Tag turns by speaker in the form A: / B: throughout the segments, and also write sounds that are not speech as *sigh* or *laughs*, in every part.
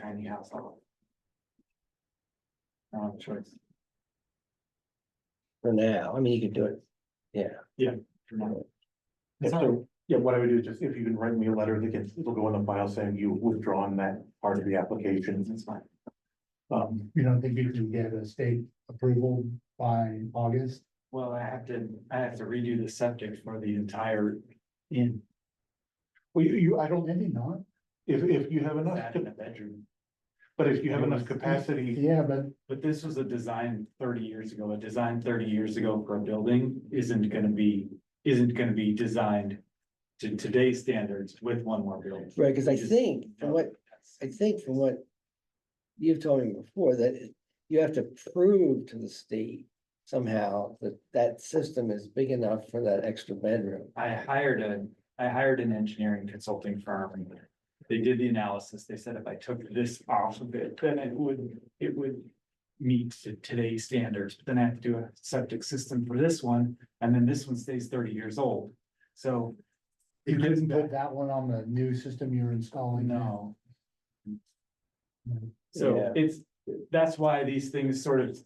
A: tiny household. Uh, I don't have a choice.
B: for now, I mean, you could do it, yeah.
A: for now.
C: Yeah, so, yeah, what I would do is just, if you can write me a letter that gets, it'll go in the file saying you withdrawn that part of the application.
A: It's fine.
C: Um,
D: You don't think you can get a state approval by August?
A: Well, I have to, I have to redo the septic for the
C: *laughs*
A: entire in,
C: well, you, you, I
D: I don't,
C: don't,
D: maybe not.
C: if, if you have enough,
A: that in the bedroom.
C: but if you have enough capacity,
D: Yeah, but
A: But this was a design thirty years ago, a design thirty years ago for a building isn't gonna be, isn't gonna be designed. To today's standards with one more building.
B: Right, because I
A: Just-
B: think, from what, I think from what you've told me before, that it- you have to prove to the state somehow that that system is big enough for that extra bedroom.
A: I hired a, I hired an engineering consulting firm. They did the analysis. They said if I took this off of it, then it would, it would. Meet to today's standards, but then I have to do a septic system for this one, and then this one stays thirty years old, so.
D: you
A: it gives
D: couldn't put
A: back-
D: that one on the new system you're
C: Oh,
D: installing. now.
A: No. So
B: Yeah.
A: it's, that's why these things sort of,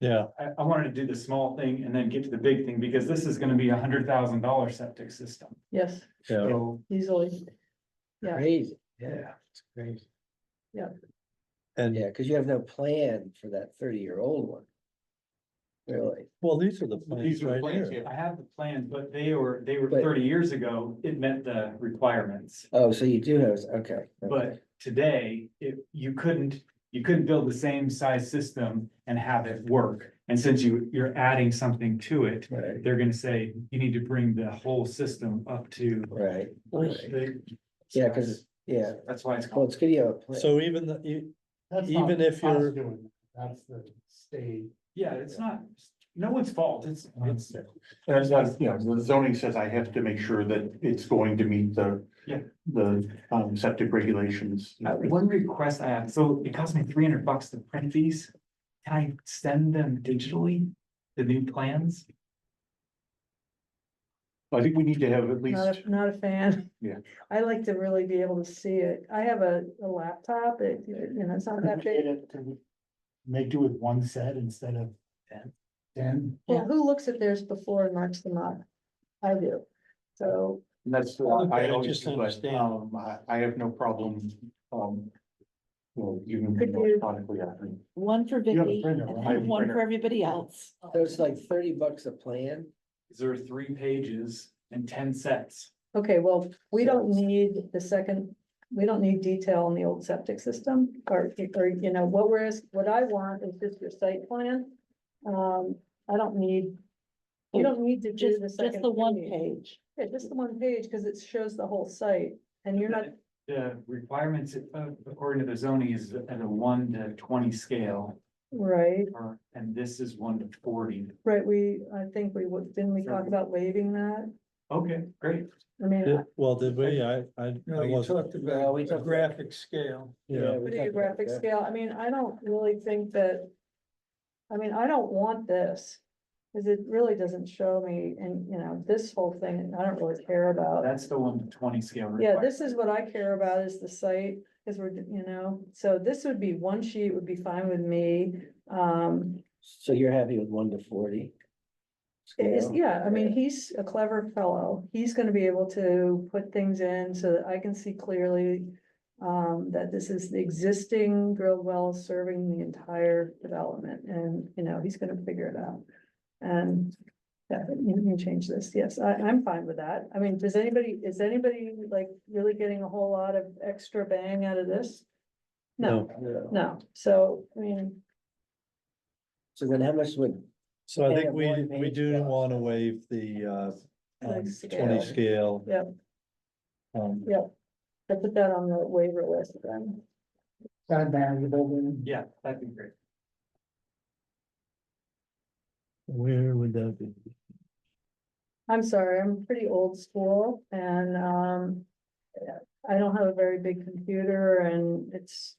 E: Yeah,
A: I, I wanted to do the small thing and then get to the big thing, because this is gonna be a hundred thousand dollar septic system,
F: Yes,
E: yeah.
A: so,
F: easily. Yeah.
B: Crazy,
A: yeah.
B: it's crazy.
E: And
B: Yeah, because you have no plan for that thirty-year-old one. Really,
E: well, these are the
C: these
E: plans
C: are the
E: right
C: plans,
E: here.
C: yeah.
A: I have the plans, but they were, they were
B: But-
A: thirty years ago, it met the requirements.
B: oh, so you do have, okay. okay.
A: But today, if you couldn't, you couldn't build the same size system and have it work. And since you, you're adding something to it,
B: Right,
A: they're gonna say, you need to bring the whole system up to.
B: right, right.
A: the-
B: yeah, because, yeah,
A: That's why it's
B: well,
A: called,
B: it's good you have a plan.
E: So even the, e-
D: That's not
E: Even if
D: us
E: you're-
D: doing that. That's the state.
A: yeah, it's not, no one's fault, it's,
B: uh-huh.
A: it's,
C: and it's not, you know, the zoning says I have to make sure that it's going to meet the.
A: Yeah.
C: The, um, septic regulations.
A: Uh, one request I have, so it cost me three hundred bucks to print these. Can I send them digitally, the new plans?
C: I think we need to have at
F: Not,
C: least,
F: a- not a fan.
C: Yeah.
F: I like to really be able to see it. I have a, a laptop, it, you know, it's not that big.
D: Could we Make do with one set instead of ten? Ten?
F: Well, who looks at theirs before and marks them up? I do. So,
C: and that's, uh,
E: Okay,
C: I
E: I
C: always,
E: just
C: do, but,
E: understand.
C: um, I, I have no problem, um. Well, even
F: Could you-
C: electronically, I think.
G: One for
D: have a
G: Vicky
D: printer,
G: and
D: right?
C: I have a
G: then one for
C: printer.
G: everybody else.
B: So it's like thirty bucks a plan,
A: There are three pages and ten sets.
F: okay, well, we don't need the second, we don't need detail on the old septic system or, or, you know, what we're, ask- what I want is just your site plan. Um, I don't need, you don't need to do
G: Just,
F: the
G: just
F: second.
G: the one
F: page.
G: page.
F: Yeah, just the one page, because it shows the whole site, and you're not,
A: The requirements uh, according to the zoning is at a one to twenty scale,
F: right,
A: or, and this is one to forty.
F: right, we, I think we would, didn't we talk
A: Mhm.
F: about waiving that?
A: Okay, great.
F: I mean,
E: Did- Well, did we, I, I.
H: No, you talked
B: No,
H: about
B: we
H: a
B: talked-
H: graphic scale.
B: yeah.
E: Yeah,
B: we
F: put it
B: talked
F: in
B: about
F: graphic
B: that.
F: scale, I mean, I don't really think that. I mean, I don't want this, because it really doesn't show me, and, you know, this whole thing, I don't really care about.
A: That's the one to twenty scale.
F: Yeah,
A: requirement.
F: this is what I care about is the site, because we're, you know, so this would be, one sheet would be fine with me, um.
B: So you're happy with one to forty?
F: It is,
B: scale?
F: yeah, I mean, he's a clever fellow. He's gonna be able to put things in so that I can see clearly. Um, that this is the existing drilled well serving the entire development and, you know, he's gonna figure it out. And. Yeah, you can change this. Yes, I, I'm fine with that. I mean, does anybody, is anybody like really getting a whole lot of extra bang out of this? No,
B: Yeah.
F: no. So, I mean,
B: So then how much would,
E: So I
B: Yeah,
E: think we,
B: one
E: we
B: page
E: do
B: job.
E: want to waive the, uh,
F: Like
E: um,
F: scale.
E: twenty scale.
F: Yep.
E: Um,
F: I put that on the waiver list then.
D: Kind of manageable then.
A: Yeah, that'd be great.
E: where would that be?
F: I'm sorry, I'm pretty old school and, um, I don't have a very big computer and it's,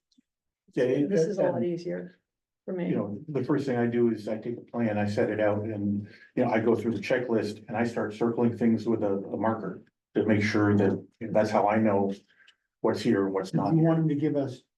C: Yeah, it-
F: this is a lot
C: and-
F: easier for me.
C: you know, the first thing I do is I take a plan, I set it out and, you know, I go through the checklist and I start circling things with a, a marker. To make sure that, that's how I know what's here and what's
D: If
C: not.
D: you wanted to give us